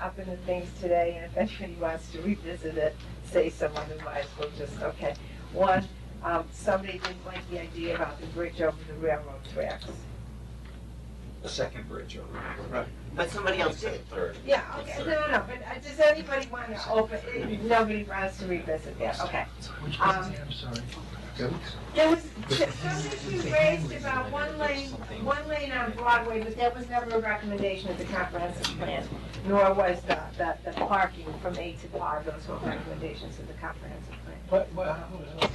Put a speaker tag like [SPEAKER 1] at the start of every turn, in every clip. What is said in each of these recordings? [SPEAKER 1] up in the things today, and if anybody wants to revisit it, say someone who might as well just, okay. One, um, somebody didn't like the idea about the bridge over the railroad tracks.
[SPEAKER 2] The second bridge over.
[SPEAKER 3] Right.
[SPEAKER 4] But somebody else
[SPEAKER 2] It's
[SPEAKER 4] did.
[SPEAKER 2] the Third.
[SPEAKER 1] Yeah, okay, no, no, no, but uh, does anybody want to open, uh, nobody wants to revisit that, okay.
[SPEAKER 3] Which
[SPEAKER 1] Um,
[SPEAKER 3] one? I'm sorry.
[SPEAKER 1] There was, some issue raised about one lane, one lane on Broadway, but that was never a recommendation of the comprehensive plan, nor was the, the, the parking from A to R, those were recommendations of the comprehensive plan.
[SPEAKER 3] What, what, hold on.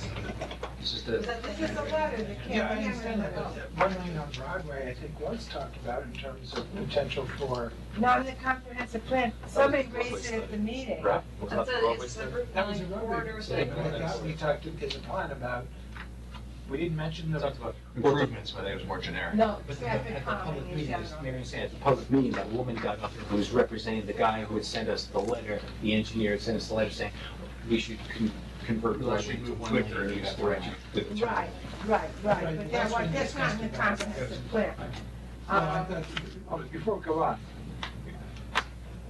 [SPEAKER 2] This is
[SPEAKER 1] This
[SPEAKER 2] the,
[SPEAKER 1] is the letter that came.
[SPEAKER 3] Yeah, I understand that, but that one lane on Broadway, I think, was talked about in terms of potential for,
[SPEAKER 1] Not in the comprehensive plan, somebody raised it at the meeting.
[SPEAKER 2] Rob,
[SPEAKER 5] It's a, it's a Route
[SPEAKER 3] that was a
[SPEAKER 5] nine
[SPEAKER 3] roadway.
[SPEAKER 5] corridor
[SPEAKER 3] mistake,
[SPEAKER 5] thing.
[SPEAKER 3] but I thought we talked in the plan about, we didn't mention
[SPEAKER 2] we
[SPEAKER 3] the,
[SPEAKER 2] talked about improvements, but it was more generic.
[SPEAKER 1] No,
[SPEAKER 6] But at the-
[SPEAKER 1] traffic
[SPEAKER 6] at the public
[SPEAKER 1] calming in
[SPEAKER 6] meeting, as
[SPEAKER 1] general.
[SPEAKER 6] Mary said, at the public meeting, that woman got up, who was representing the guy who had sent us the letter, the engineer had sent us the letter saying, we should con- convert.
[SPEAKER 2] Unless you
[SPEAKER 6] Broadway to
[SPEAKER 2] move one
[SPEAKER 6] Twitter
[SPEAKER 2] lane or
[SPEAKER 6] and
[SPEAKER 2] you
[SPEAKER 6] use
[SPEAKER 2] have
[SPEAKER 6] the
[SPEAKER 2] to
[SPEAKER 6] right- the-
[SPEAKER 1] Right, right, right, but that
[SPEAKER 3] That's
[SPEAKER 1] was,
[SPEAKER 3] what
[SPEAKER 1] that's not in the
[SPEAKER 3] discussed about.
[SPEAKER 1] comprehensive plan.
[SPEAKER 3] Well, I
[SPEAKER 1] Um,
[SPEAKER 3] thought- oh, before we go on,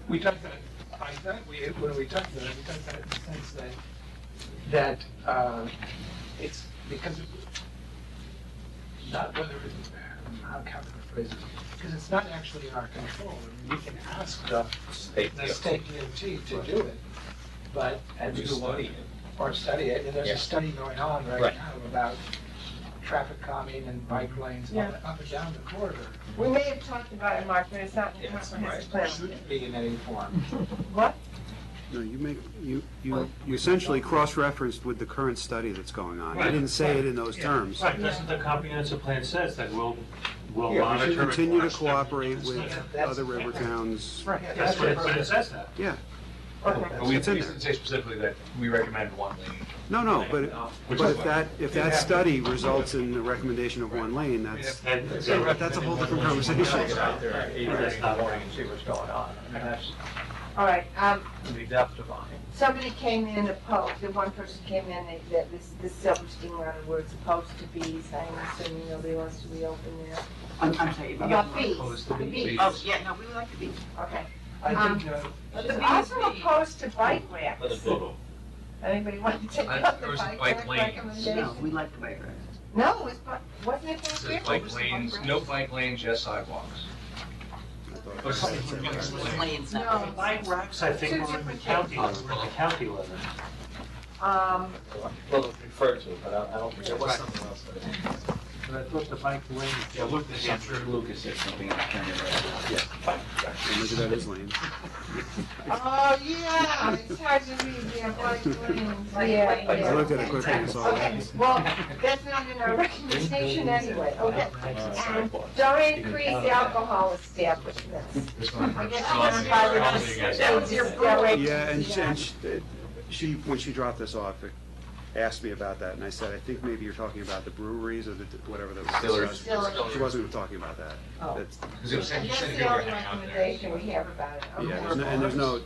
[SPEAKER 3] we talked about, I thought we, when we talked about it, we talked about it in the sense that, that, uh, it's because of, not whether, it's- how can I phrase it? Because it's not actually in our control, I mean, we can ask the,
[SPEAKER 2] State,
[SPEAKER 3] the
[SPEAKER 2] yeah.
[SPEAKER 3] state DOT to do it, but, and
[SPEAKER 2] You
[SPEAKER 3] do what?
[SPEAKER 2] study it.
[SPEAKER 3] Or study it, and there's
[SPEAKER 2] Yeah.
[SPEAKER 3] a study going on right
[SPEAKER 6] Right.
[SPEAKER 3] now about traffic calming and bike lanes
[SPEAKER 1] Yeah.
[SPEAKER 3] up up and down the corridor.
[SPEAKER 1] We may have talked about it, Mark, but it's not in the
[SPEAKER 2] Yes,
[SPEAKER 1] comprehensive
[SPEAKER 3] Or
[SPEAKER 1] plan.
[SPEAKER 3] shouldn't be in any form.
[SPEAKER 1] What?
[SPEAKER 7] No, you make, you, you you essentially cross-referenced with the current study that's going on. I didn't say it in those terms.
[SPEAKER 8] Right, that's what the comprehensive plan says, that we'll, we'll
[SPEAKER 7] Yeah, we
[SPEAKER 8] monitor.
[SPEAKER 7] should
[SPEAKER 8] and
[SPEAKER 7] continue to
[SPEAKER 8] watch them.
[SPEAKER 7] cooperate with other river towns.
[SPEAKER 3] Right,
[SPEAKER 8] That's what it, but it says that.
[SPEAKER 7] Yeah,
[SPEAKER 2] But we we
[SPEAKER 7] It's in there.
[SPEAKER 2] didn't say specifically that we recommend one lane.
[SPEAKER 7] no, no, but, but if that, if that study results in the recommendation of one lane, that's,
[SPEAKER 8] And
[SPEAKER 7] but that's a whole different conversation.
[SPEAKER 2] Get out there at eight
[SPEAKER 8] Right.
[SPEAKER 2] in the morning and see what's going on. I mean, that's
[SPEAKER 1] All right, um,
[SPEAKER 2] the depth of on it.
[SPEAKER 1] somebody came in and opposed, the one person came in, they- that this, this Silverstein Road where it's supposed to be, so I'm assuming nobody wants to reopen there.
[SPEAKER 4] I'm, I'm sorry. we
[SPEAKER 1] Yeah,
[SPEAKER 4] don't-
[SPEAKER 1] fees, the fees,
[SPEAKER 4] Oh, yeah, no, we would like to be.
[SPEAKER 1] okay.
[SPEAKER 3] I think, uh,
[SPEAKER 1] But it's also opposed to bike racks. Anybody want to take
[SPEAKER 5] I-
[SPEAKER 1] up the
[SPEAKER 5] there was a
[SPEAKER 1] bike
[SPEAKER 5] bike
[SPEAKER 1] rack
[SPEAKER 5] lane.
[SPEAKER 4] No,
[SPEAKER 1] recommendation?
[SPEAKER 4] we like the bike racks.
[SPEAKER 1] No, it was, bu- wasn't it
[SPEAKER 2] It
[SPEAKER 1] bike
[SPEAKER 2] says
[SPEAKER 1] racks?
[SPEAKER 2] bike lanes, no bike lanes, yes sidewalks.
[SPEAKER 4] It's lanes, not
[SPEAKER 1] No.
[SPEAKER 4] roads.
[SPEAKER 8] Bike racks, I think, were in the county, were in the county level.
[SPEAKER 1] Um,
[SPEAKER 6] Well, it's referred to, but I I don't think
[SPEAKER 2] There
[SPEAKER 6] it
[SPEAKER 2] was
[SPEAKER 6] was.
[SPEAKER 2] something else. that-
[SPEAKER 8] But I thought the bike lane.
[SPEAKER 6] Yeah, look, this is true. Lucas said something, I can't remember.
[SPEAKER 7] Maybe that is lame.
[SPEAKER 1] oh, yeah, it's hard to read, yeah, bike lanes, yeah,
[SPEAKER 5] Bike lanes.
[SPEAKER 1] yeah.
[SPEAKER 7] I looked at it quickly and saw
[SPEAKER 1] Okay,
[SPEAKER 7] that.
[SPEAKER 1] well, that's not in our recommendation anyway, okay?
[SPEAKER 2] Uh,
[SPEAKER 1] And don't increase alcohol establishments.
[SPEAKER 2] This one.
[SPEAKER 1] I guess
[SPEAKER 5] Oh,
[SPEAKER 1] that's
[SPEAKER 5] it's
[SPEAKER 1] why we're
[SPEAKER 5] your-
[SPEAKER 1] gonna
[SPEAKER 5] it's
[SPEAKER 1] say
[SPEAKER 5] your-
[SPEAKER 1] it's their way to
[SPEAKER 7] Yeah, and
[SPEAKER 1] do
[SPEAKER 7] she-
[SPEAKER 1] that.
[SPEAKER 7] and she- she, when she dropped this off, it asked me about that, and I said, I think maybe you're talking about the breweries or the, whatever that was discussed. She wasn't talking about that.
[SPEAKER 1] Oh.
[SPEAKER 7] That's-
[SPEAKER 2] Because it was
[SPEAKER 1] And
[SPEAKER 2] you
[SPEAKER 1] that's
[SPEAKER 2] said
[SPEAKER 1] the
[SPEAKER 2] you were
[SPEAKER 1] only
[SPEAKER 2] hanging out there.
[SPEAKER 1] recommendation we have about it, okay?
[SPEAKER 7] Yeah, there's no- and there's no,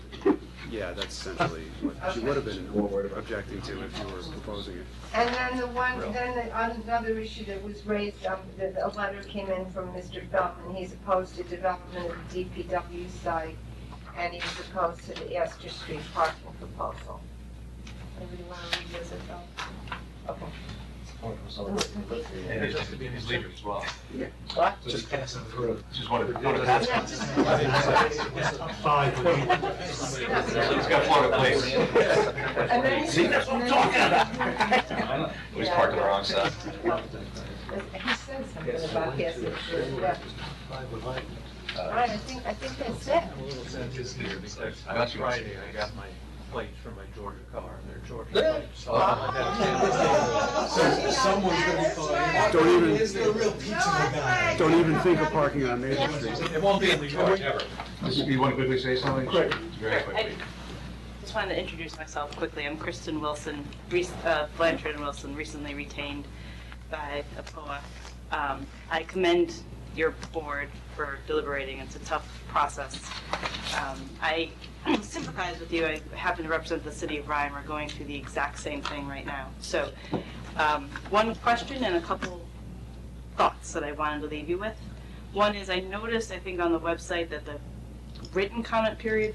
[SPEAKER 7] yeah, that's essentially what she would have been objecting to if you were proposing it.
[SPEAKER 1] And then the one, then the, another issue that was raised, um, the, the- a letter came in from Mr. Feldman, he's opposed to development of the DPW site, and he's opposed to the Astor Street parking proposal. Anybody wanna revisit that? Okay.
[SPEAKER 2] Oh, And it's just to be in his leader as well.
[SPEAKER 1] What?
[SPEAKER 2] Just passing through. Just wanted, wanted to
[SPEAKER 1] Yeah,
[SPEAKER 2] pass.
[SPEAKER 1] just-
[SPEAKER 8] Five.
[SPEAKER 2] He's got Florida
[SPEAKER 1] And then-
[SPEAKER 2] plates. See, that's what I'm talking about. We just parked on the wrong side.
[SPEAKER 1] He said something about Astor Street, yeah. All right, I think, I think that's it.
[SPEAKER 2] I thought you were saying-
[SPEAKER 5] I got my plates from my Georgia car, and they're Georgia
[SPEAKER 2] Yeah.
[SPEAKER 5] plates. So I
[SPEAKER 1] So someone's gonna be
[SPEAKER 7] Don't even,
[SPEAKER 3] is there real pizza
[SPEAKER 7] don't even think of parking on Main Street.
[SPEAKER 2] It won't be in New York, ever. You want to quickly say something? Very quickly.
[SPEAKER 5] Just wanted to introduce myself quickly. I'm Kristen Wilson, rec- uh, Blanchard and Wilson, recently retained by APOA. Um, I commend your board for deliberating. It's a tough process. Um, I sympathize with you. I happen to represent the city of Ryan. We're going through the exact same thing right now. So um, one question and a couple thoughts that I wanted to leave you with. One is I noticed, I think, on the website that the written comment period